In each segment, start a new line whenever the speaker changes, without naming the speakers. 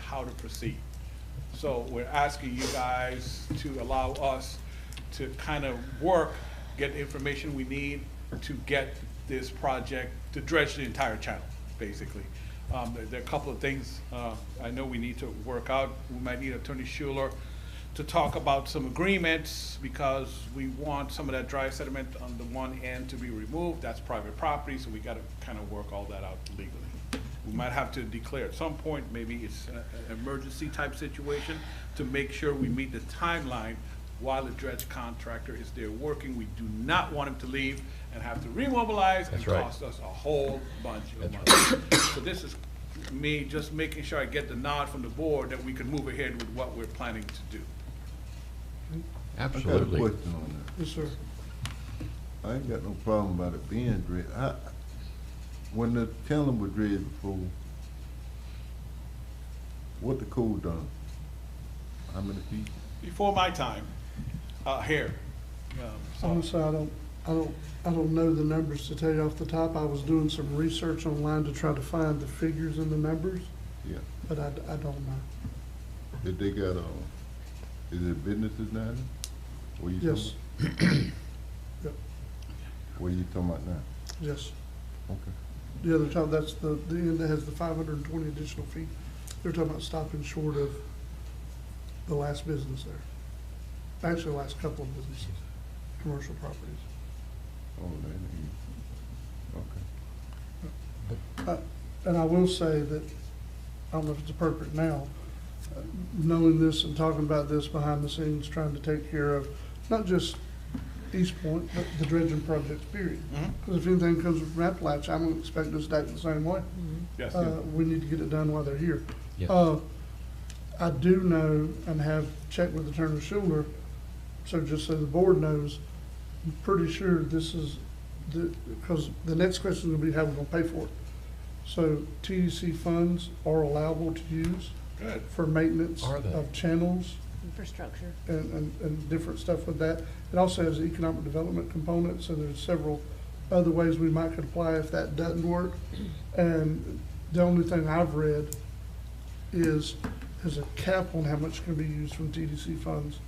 how to proceed. So we're asking you guys to allow us to kind of work, get the information we need to get this project, to dredge the entire channel, basically. Um, there, there are a couple of things, uh, I know we need to work out. We might need Attorney Schuler to talk about some agreements because we want some of that dry sediment on the one end to be removed. That's private property, so we gotta kind of work all that out legally. We might have to declare at some point, maybe it's a- an emergency type situation to make sure we meet the timeline while the dredge contractor is there working. We do not want him to leave and have to remobilize and
That's right.
cost us a whole bunch of money. So this is me just making sure I get the nod from the board that we can move ahead with what we're planning to do.
I got a
Absolutely.
question on
Yes, sir.
that. I ain't got no problem about it being dredged. I, when the channel was dredged before, what the code done? How many feet?
Before my time, uh, here. um, so-
Honestly, I don't, I don't, I don't know the numbers to tell you off the top. I was doing some research online to try to find the figures and the numbers,
Yeah,
but I, I don't know.
did they got, uh, is it businesses now? then? What you talking
Yes,
about? What are you talking about now?
yes.
Okay.
The other time, that's the, the end that has the five hundred and twenty additional feet. They're talking about stopping short of the last business there. Actually, the last couple of businesses, commercial properties.
Oh, that ain't, okay.
Uh, And I will say that, I don't know if it's appropriate now, uh, knowing this and talking about this behind the scenes, trying to take care of not just East Point, but the dredging projects, period.
Mhm.
Because if anything comes from Appalachia, I don't expect us to act the same way.
Yes,
Uh, We need to get it done while they're here.
Yes.
Uh, I do know and have checked with Attorney Schuler, so just so the board knows, I'm pretty sure this is, the because the next question will be how we're gonna pay for it. So TDC funds are allowable to use
good.
for maintenance
Are they?
of channels
Infrastructure.
and, and, and different stuff with that. It also has an economic development component, so there's several other ways we might could apply if that doesn't work. And the only thing I've read is, there's a cap on how much can be used from TDC funds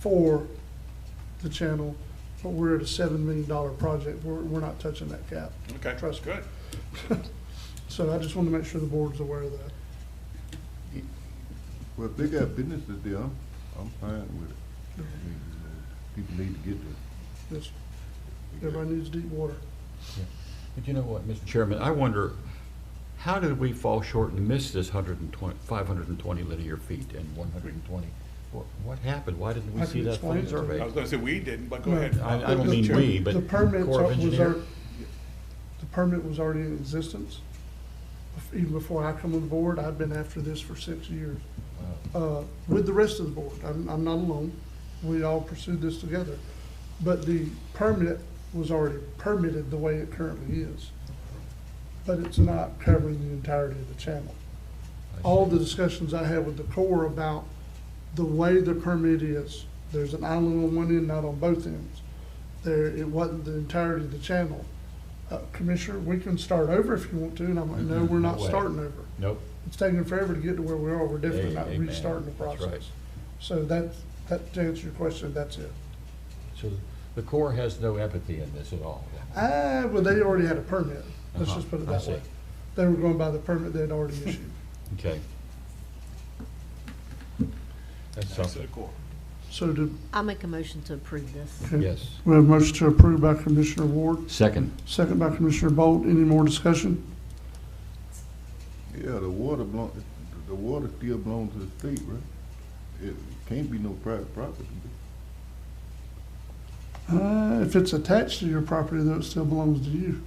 for the channel, but we're at a seven million dollar project, we're, we're not touching that cap.
Okay,
Trust me.
good.
So I just want to make sure the board's aware of that.
Well, if they got businesses there, I'm, I'm fine with it. I mean, you know, People need to get there.
This, everybody needs deep water.
But you know what, Mr. Chairman, I wonder, how did we fall short and miss this 120, 520 linear feet and 120? What- What happened? Why didn't
I
we
can
see that
explain it
flood
to you.
survey?
I was gonna say we didn't, but go
No,
ahead.
I- I don't
Mr.
mean
Chairman.
we, but
The permit
Corps of
was, al-
Engineer?
the permit was already in existence. Even before I come on board, I've been after this for six years, uh, with the rest of the board. I'm, I'm not alone. We all pursued this together. But the permit was already permitted the way it currently is. But it's not covering the entirety of the channel. All the discussions I had with the Corps about the way the permit is, there's an island on one end, not on both ends. There, it wasn't the entirety of the channel. Uh, Commissioner, we can start over if you want to, and I'm like, no, we're not
No way.
starting over.
Nope.
It's taking forever to get to where we are, we're definitely not
Amen.
restarting the
That's right.
process. So that, that, to answer your question, that's it.
So the Corps has no empathy in this at all?
Ah, well, they already had a permit, let's
Uh-huh,
just put it
I
that
see.
way. They were going by the permit they'd already issued.
Okay. That's
Nice to the
something,
core.
So do,
I make a motion to approve this.
yes.
we have a motion to approve by Commissioner Ward,
Second.
second by Commissioner Bolt, any more discussion?
Yeah, the water belong, the water still belongs to the state, right? It can't be no private property.
Uh, if it's attached to your property, though, it still belongs to you.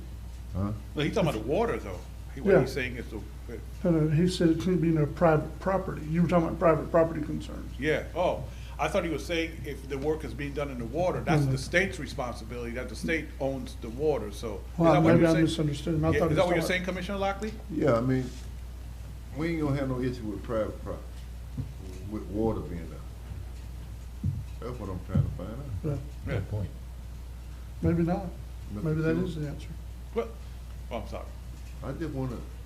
No, he's talking about the water, though. He- What
Yeah.
he's saying is, the
No, no, uh, he said it couldn't be no private property. You were talking about private property concerns.
yeah, oh, I thought he was saying if the work is being done in the water, that's
Mhm.
the state's responsibility, that the state owns the water, so. is
Well,
that what
maybe
you're
I
saying?
misunderstood him. I
Yeah,
thought he
Is that
was
what you're
talking-
saying, Commissioner Lockley?
Yeah, I mean, we ain't gonna have no issue with private property, with water being there. That's what I'm trying to find out.
Yeah,
Yeah.
Good point.
Maybe not.
Mr.
Maybe that
Chairman,
is the answer.
Well, oh, I'm sorry.
I just wanna,